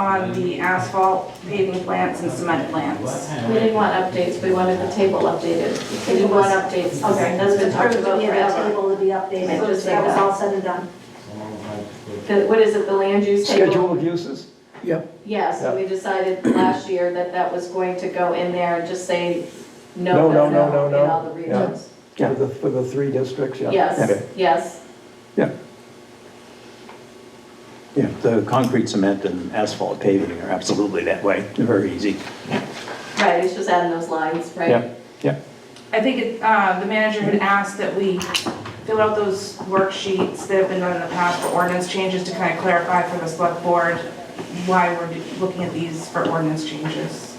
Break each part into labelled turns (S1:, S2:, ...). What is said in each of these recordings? S1: on the asphalt paving plants and cement plants.
S2: We didn't want updates, we wanted the table updated. We didn't want updates.
S3: Okay,
S2: That's been talked
S3: approved,
S2: about
S3: we have a
S2: forever.
S3: table to be updated,
S2: So
S3: just that was all said and done.
S2: The- What is it, the land use
S4: Schedule
S2: table?
S4: of uses, yep,
S2: Yes,
S4: Yeah.
S2: we decided last year that that was going to go in there and just say,
S4: No,
S2: no,
S4: no,
S2: no,
S4: no,
S2: no,
S4: no,
S2: in all the
S4: yeah.
S2: regions.
S4: for the, for the three districts, yeah.
S2: Yes,
S5: Okay.
S2: yes,
S5: Yeah, the concrete, cement, and asphalt paving are absolutely that way, They're very easy.
S2: right, it's just adding those lines, right?
S5: Yeah, yeah.
S1: I think it, uh, the manager had asked that we fill out those worksheets that have been done in the past for ordinance changes to kind of clarify for the select board why we're do- looking at these for ordinance changes.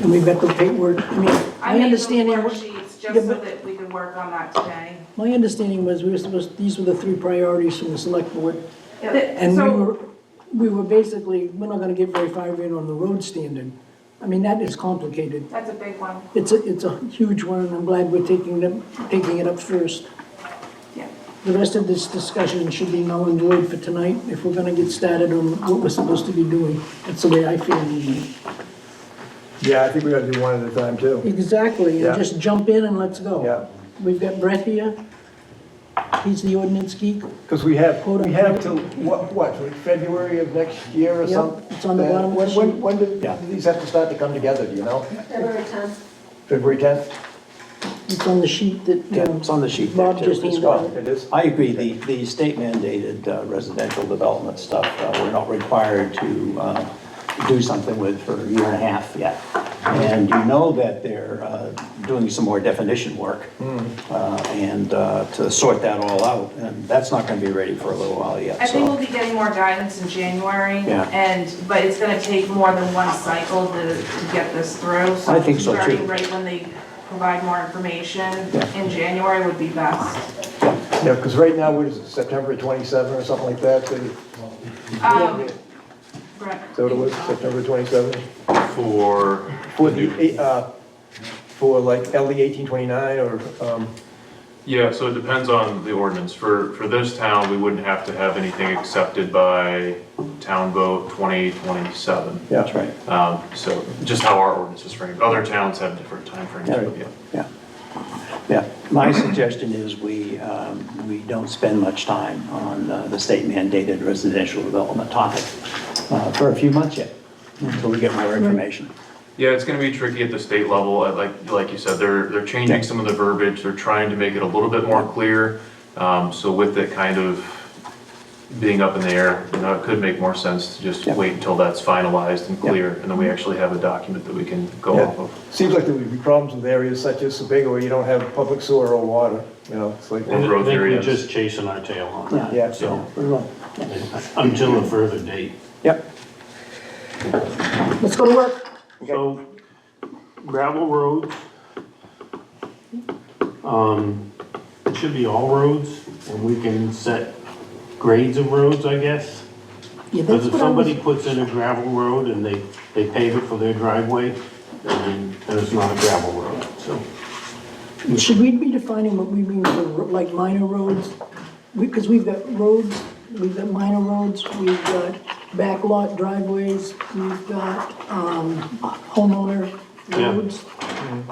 S6: And we've got the paperwork, I mean,
S1: I
S6: my
S1: made those
S6: understanding,
S1: worksheets just
S6: Yeah,
S1: so
S6: but-
S1: that we could work on that today.
S6: my understanding was we were supposed, these were the three priorities from the select board. And we
S1: So,
S6: were, we were basically, we're not gonna get very far in on the road standard. I mean, that is complicated.
S1: that's a big one,
S6: It's a, it's a huge one, and I'm glad we're taking them, taking it up first.
S1: yeah.
S6: The rest of this discussion should be null and void for tonight if we're gonna get started on what we're supposed to be doing. That's the way I feel. anyway.
S4: Yeah, I think we gotta do one at a time too.
S6: Exactly,
S4: Yeah.
S6: and just jump in and let's go.
S4: Yeah.
S6: We've got Brett here. He's the ordinance geek.
S4: Because we have,
S6: Hold on.
S4: we have till, what, what, February of next year or
S6: Yep,
S4: something? Uh,
S6: it's on the bottom of the
S4: When, when,
S6: sheet.
S4: when do
S5: Yeah.
S4: do these have to start to come together, do you know?
S3: February 10th.
S4: February tenth?
S6: It's on the sheet that,
S5: Yeah,
S6: um,
S5: it's on the sheet there,
S6: Bob
S5: too.
S6: just
S5: It's
S6: handed
S5: got-
S6: out.
S4: It is?
S5: I agree, the, the state mandated uh, residential development stuff, uh, we're not required to uh, do something with for a year and a half yet. And you know that they're uh, doing some more definition work
S4: Mm-hmm. Hmm,
S5: uh, and uh, to sort that all out, and that's not going to be ready for a little while yet,
S1: I think we'll
S5: so.
S1: be getting more guidance in January.
S5: Yeah.
S1: And, but it's gonna take more than one cycle to, to get this through.
S5: I think so, too.
S1: Starting right when they provide more information
S5: Yeah.
S1: in January would be best.
S4: Yeah, because right now, what is it, September twenty-seven or something like that? that-
S1: Um, Brett,
S4: Is that what it was, September twenty-seven?
S7: for,
S4: For the, uh, for like LD eighteen twenty-nine or, um,
S7: yeah, so it depends on the ordinance. For, for this town, we wouldn't have to have anything accepted by town vote 2027.
S4: yeah.
S5: That's right,
S7: Um, So just how our ordinance is framed. Other towns have different timeframes, but yeah.
S5: yeah. Yeah, my suggestion is we, um, we don't spend much time on uh, the state mandated residential development topic uh, for a few months yet, until we get more information.
S7: Yeah, it's gonna be tricky at the state level, I- like, like you said, they're, they're
S5: Yeah.
S7: changing some of the verbiage, they're trying to make it a little bit more clear. Um, so with it kind of being up in the air, you know, it could make more sense to just
S5: Yeah.
S7: wait until that's finalized and
S5: Yeah.
S7: clear, and then we actually have a document that we can go off
S4: Yeah,
S7: of.
S4: seems like there would be problems with areas such as Sebago where you don't have public sewer or water, you know, it's like,
S7: Or
S8: I
S7: growth
S8: think we're
S7: areas.
S8: just chasing our tail on that.
S4: yeah,
S8: So,
S5: We will.
S8: until a further date.
S5: Yep,
S6: let's go to work.
S8: So gravel roads. Um, it should be all roads and we can set grades of roads, I guess.
S6: Yeah,
S8: Because
S6: that's
S8: if
S6: what I was-
S8: somebody puts in a gravel road and they, they pave it for their driveway, then then it's not a gravel road, so.
S6: Should we be defining what we mean for, ro- like, minor roads? Because we've got roads, we've got minor roads, we've got backlot driveways, we've got, um, homeowner
S8: Yeah.
S6: roads.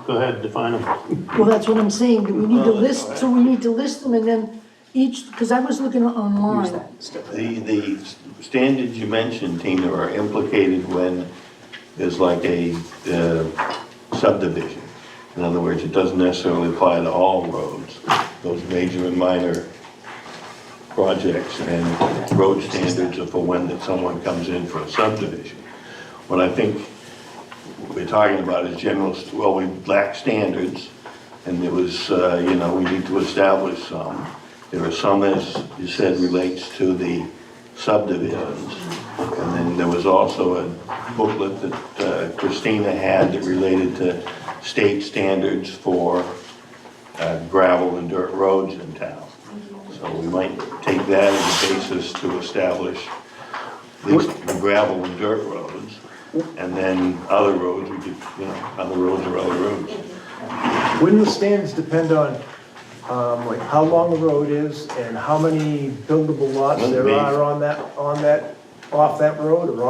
S8: Go ahead, define them.
S6: Well, that's what I'm saying, do we need to list, so we need to list them and then each, because I was looking online.
S9: The, the standards you mentioned, Tina, are implicated when there's like a uh, subdivision. In other words, it doesn't necessarily apply to all roads, those major and minor projects and road standards are for when that someone comes in for a subdivision. What I think we're talking about is general, well, we lack standards, and it was, uh, you know, we need to establish some. There are some, as you said, relates to the subdivisions. And then there was also a booklet that uh, Christina had that related to state standards for uh, gravel and dirt roads in town. So we might take that as a basis to establish at least the gravel and dirt roads, and then other roads, we could, you know, other roads are other roads.
S4: Wouldn't the standards depend on, um, like how long the road is and how many buildable lots there
S9: Wouldn't be.
S4: are on that, on that off that road or